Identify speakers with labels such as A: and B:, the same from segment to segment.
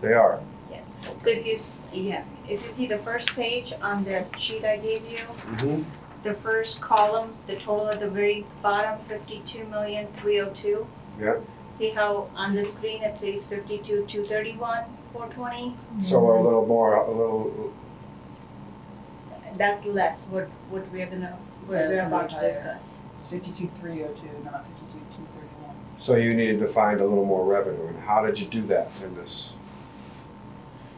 A: They are.
B: Yes, so if you, s- yeah, if you see the first page on the sheet I gave you,
A: Mhm.
B: the first column, the total at the very bottom, fifty-two million, three oh two.
A: Yeah.
B: See how on the screen it says fifty-two, two thirty-one, four twenty?
A: So a little more, a little,
B: That's less what, what we're gonna, what
C: Yeah,
B: we're
C: it's
B: about
C: gonna
B: to
C: be
B: discuss.
C: It's fifty-two, three oh two, not fifty-two, two thirty-one.
A: so you needed to find a little more revenue. And how did you do that in this?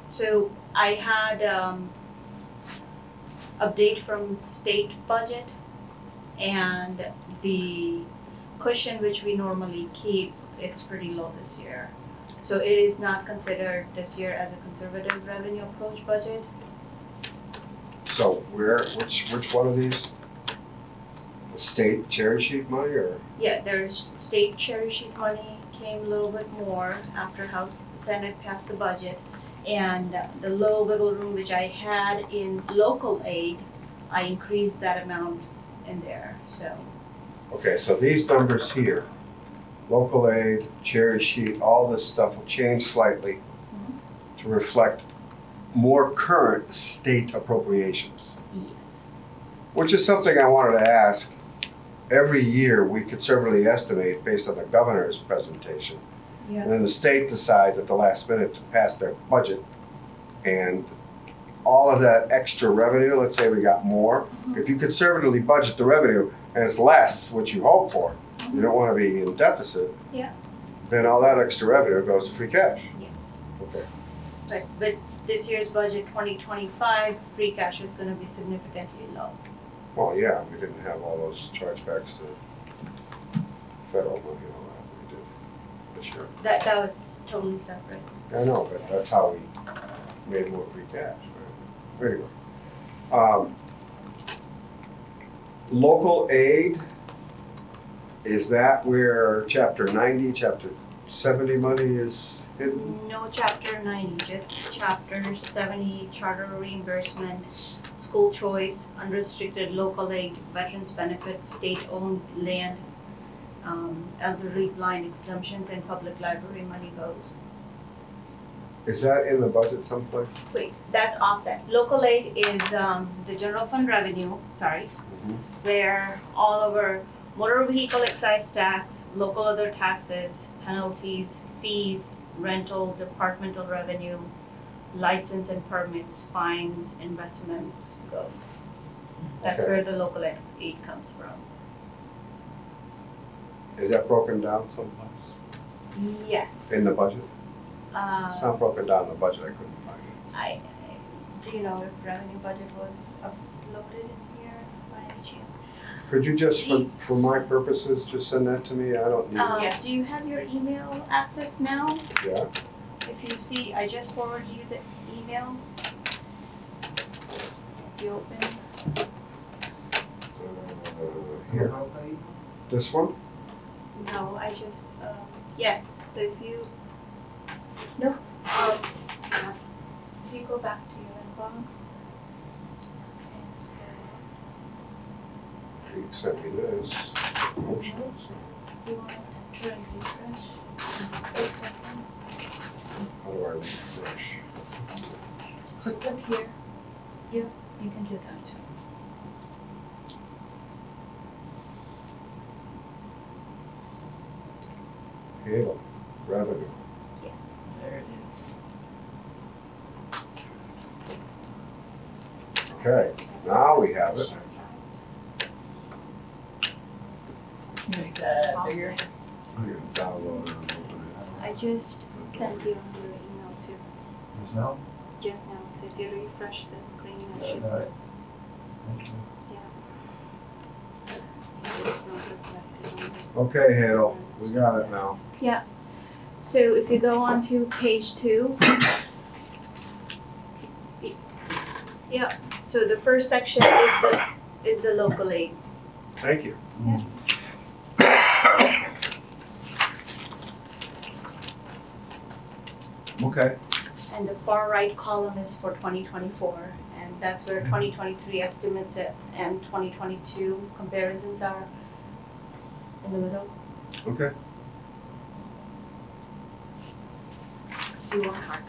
B: So I had, um, update from state budget and the cushion which we normally keep, it's pretty low this year. So it is not considered this year as a conservative revenue approach budget.
A: So where, which, which one of these? The state cherry sheet money or?
B: Yeah, there's state cherry sheet money came a little bit more after House and Senate passed the budget. And the low wiggle room which I had in local aid, I increased that amount in there, so.
A: Okay, so these numbers here, local aid, cherry sheet, all this stuff will change slightly to reflect more current state appropriations.
B: Yes.
A: Which is something I wanted to ask. Every year, we conservatively estimate based on the governor's presentation.
B: Yeah.
A: And then the state decides at the last minute to pass their budget. And all of that extra revenue, let's say we got more, if you conservatively budget the revenue and it's less what you hope for, you don't wanna be in deficit.
B: Yeah.
A: Then all that extra revenue goes to free cash.
B: Yes.
A: Okay.
B: But, but this year's budget, twenty twenty-five, free cash is gonna be significantly low.
A: Well, yeah, we didn't have all those chargebacks to federal money and all that, we did this year.
B: That, that was totally separate.
A: I know, but that's how we made more free cash, right? Anyway. um, Local aid, is that where chapter ninety, chapter seventy money is hidden?
B: No chapter ninety, just chapter seventy, charter reimbursement, school choice, unrestricted local aid, veterans benefits, state-owned land, um, elderly blind exemptions and public library money goes.
A: Is that in the budget someplace?
B: Wait, that's offset. Local aid is, um, the general fund revenue, sorry, where all of our motor vehicle excise tax, local other taxes, penalties, fees, rental, departmental revenue, license and permits, fines, investments goes. That's
A: Okay.
B: where the local ed- aid comes from.
A: Is that broken down someplace
B: Yes.
A: in the budget? It's
B: Uh,
A: not broken down in the budget, I couldn't find
B: I, I- do you know if revenue budget was uploaded in here by any chance?
A: it. Could you just, for, for my purposes, just send that to me? I don't need
B: Um,
A: it.
C: Yes.
B: do you have your email access now?
A: Yeah?
B: If you see, I just forwarded you the email. If you open,
A: Uh, Here, this one?
B: no, I just, um, yes, so if you, no, um, yeah. if you go back to your inbox. and scroll
A: He sent me this.
B: up, You want to try and refresh? Or something?
A: How do I refresh?
B: Just click here.
C: You can do that too.
A: Halo, revenue.
B: Yes.
C: There it is.
A: Okay, now we have it.
C: Make that bigger.
A: I'm gonna download it and open it.
B: I just sent you on your email too,
D: There's no,
B: just now, so if you refresh the screen, I should.
D: got it. Thank you.
A: Okay, Halo, we got it now.
B: So if you go on to page two. Yeah, so the first section is the, is the local aid.
A: Thank you.
B: Yeah.
A: Okay,
B: And the far right column is for twenty twenty-four, and that's where twenty twenty-three estimates at- and twenty twenty-two comparisons are in the middle.
A: okay.
B: Do you want